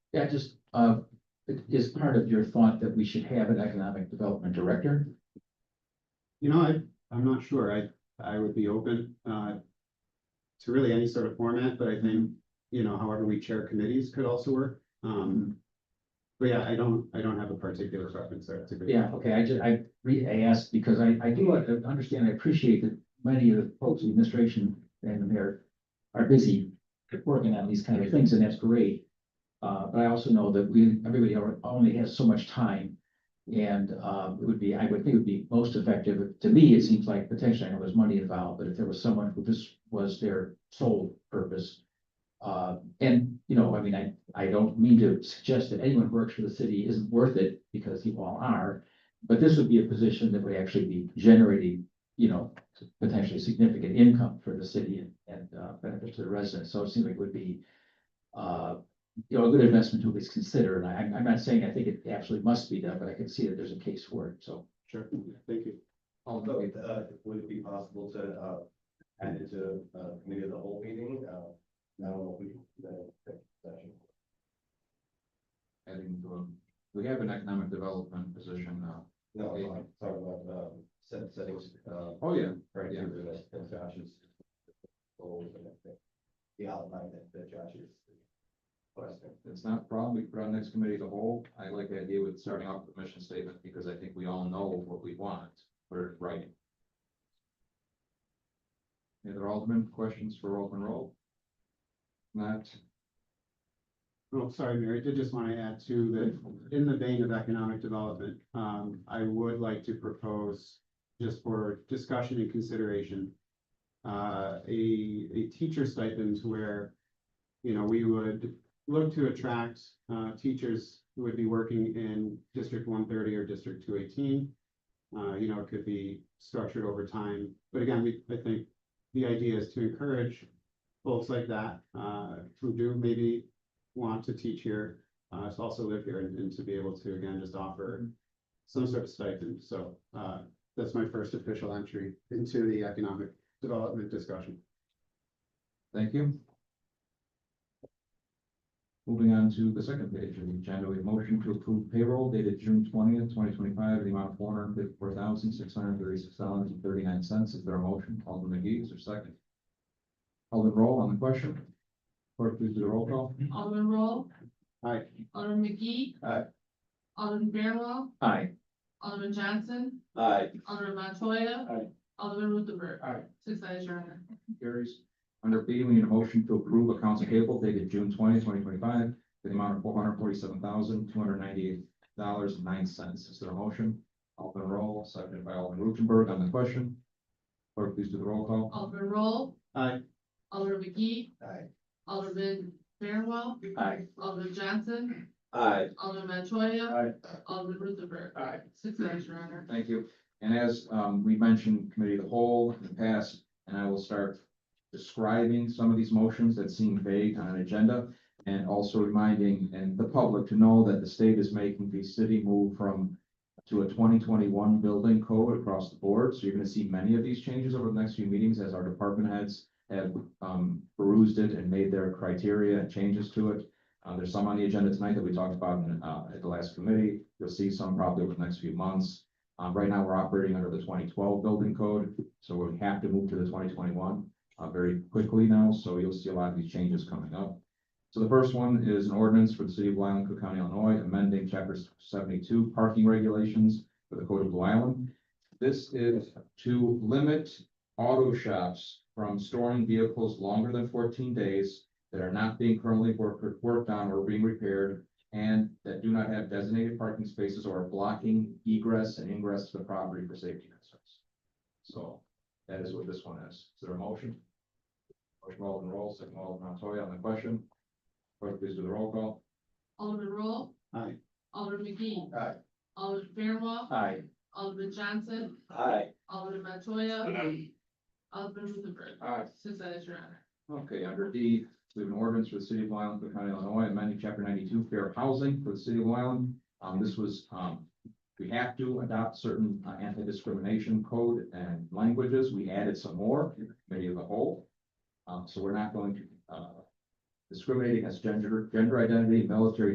Yeah, just, uh, it is part of your thought that we should have an economic development director? You know, I, I'm not sure. I, I would be open, uh, to really any sort of format, but I think, you know, however we chair committees could also work. Um, but yeah, I don't, I don't have a particular preference there. It's a good- Yeah, okay, I just, I re, I asked because I, I do like to understand, I appreciate that many of the folks in the administration and the mayor are busy working on these kind of things, and that's great. Uh, but I also know that we, everybody al- only has so much time. And, um, it would be, I would think it would be most effective, to me, it seems like potentially, I know there's money involved, but if there was someone who this was their sole purpose. Uh, and, you know, I mean, I, I don't mean to suggest that anyone who works for the city isn't worth it, because you all are. But this would be a position that would actually be generating, you know, potentially significant income for the city and, and uh, benefits to the residents, so it seems like it would be. Uh, you know, a good investment to at least consider, and I, I'm- I'm not saying I think it absolutely must be done, but I can see that there's a case for it, so. Sure. Thank you. Although, uh, would it be possible to, uh, add it to, uh, maybe the whole meeting, uh, now we, the, the session? adding to them. um, We have an economic development position now. No, I'm talking about, um, set, settings, uh, Oh, yeah. right Yeah. here, the, the Josh's. Goals and everything. The outline that, that Josh is. requesting. It's not a problem. We put on next committee the whole. I like the idea with starting off with a mission statement because I think we all know what we want. We're writing. Any other Alderman questions for Alderman Roll? Not, Oh, sorry, Mary, I did just want to add too, that in the vein of economic development, um, I would like to propose just for discussion and consideration, uh, a, a teacher stipend where, you know, we would look to attract, uh, teachers who would be working in District one thirty or District two eighteen. Uh, you know, it could be structured over time, but again, we, I think the idea is to encourage folks like that, uh, who do maybe want to teach here, uh, to also live here and, and to be able to again, just offer some sort of stipend. So, uh, that's my first official entry into the economic development discussion. thank you. Moving on to the second page of the agenda, we have motion to approve payroll dated June twentieth, twenty twenty-five, in the amount of four hundred and fifty-four thousand, six hundred and thirty-six dollars and thirty-nine cents. Is there a motion? Alderman McGee, is there a second? Alderman Roll on the question. Clerk, please do the roll call. Alderman Roll. Aye. Alderman McGee. Aye. Alderman Fairwell, Aye. Alderman Johnson, Aye. Alderman Montoya. Aye. Alderman Ruthenberg. Aye. Six ayes, your honor. Carries. Under B, we need a motion to approve accounts payable dated June 20, 2025, in the amount of four hundred forty-seven thousand, two hundred ninety-eight dollars and nine cents. Is there a motion? Alderman Roll, seconded by Alderman Rutenberg on the question. Clerk, please do the roll call. Alderman Roll. Aye. Alderman McGee, Aye. Alderman Fairwell, Aye. Alderman Johnson, Aye. Alderman Montoya. Alderman Ruthenberg. Aye. Six ayes, your honor. Thank you. And as um we mentioned, committee of the whole in the past, and I will start describing some of these motions that seem vague on an agenda. And also reminding and the public to know that the state is making the city move from to a twenty twenty-one building code across the board. So you're gonna see many of these changes over the next few meetings as our department heads have um perused it and made their criteria and changes to it. Uh, there's some on the agenda tonight that we talked about in uh at the last committee. You'll see some probably over the next few months. Um, right now, we're operating under the twenty twelve building code, so we have to move to the twenty twenty one uh, very quickly now, so you'll see a lot of these changes coming up. So the first one is an ordinance for the city of Blue Island, Cook County, Illinois, amending chapter seventy-two parking regulations for the code of Blue Island. This is to limit auto shops from storing vehicles longer than fourteen days that are not being currently worked, worked on or being repaired and that do not have designated parking spaces or are blocking egress and ingress to the property for safety concerns. So that is what this one is. Is there a motion? Motion Alderman Roll, second Alderman Montoya on the question. Clerk, please do the roll call. Alderman Roll. Aye. Alderman McGee. Aye. Alderman Fairwell, Aye. Alderman Johnson, Aye. Alderman Montoya. Alderman Ruthenberg. Aye. Six ayes, your honor. Okay, under D, we have an ordinance for the city of Blue Island, Cook County, Illinois, amending chapter ninety-two fair housing for the city of Blue Island. Um, this was, um, we have to adopt certain uh, anti-discrimination code and languages. We added some more, in the committee of the whole. Um, so we're not going to, uh, discriminating as gender, gender identity, military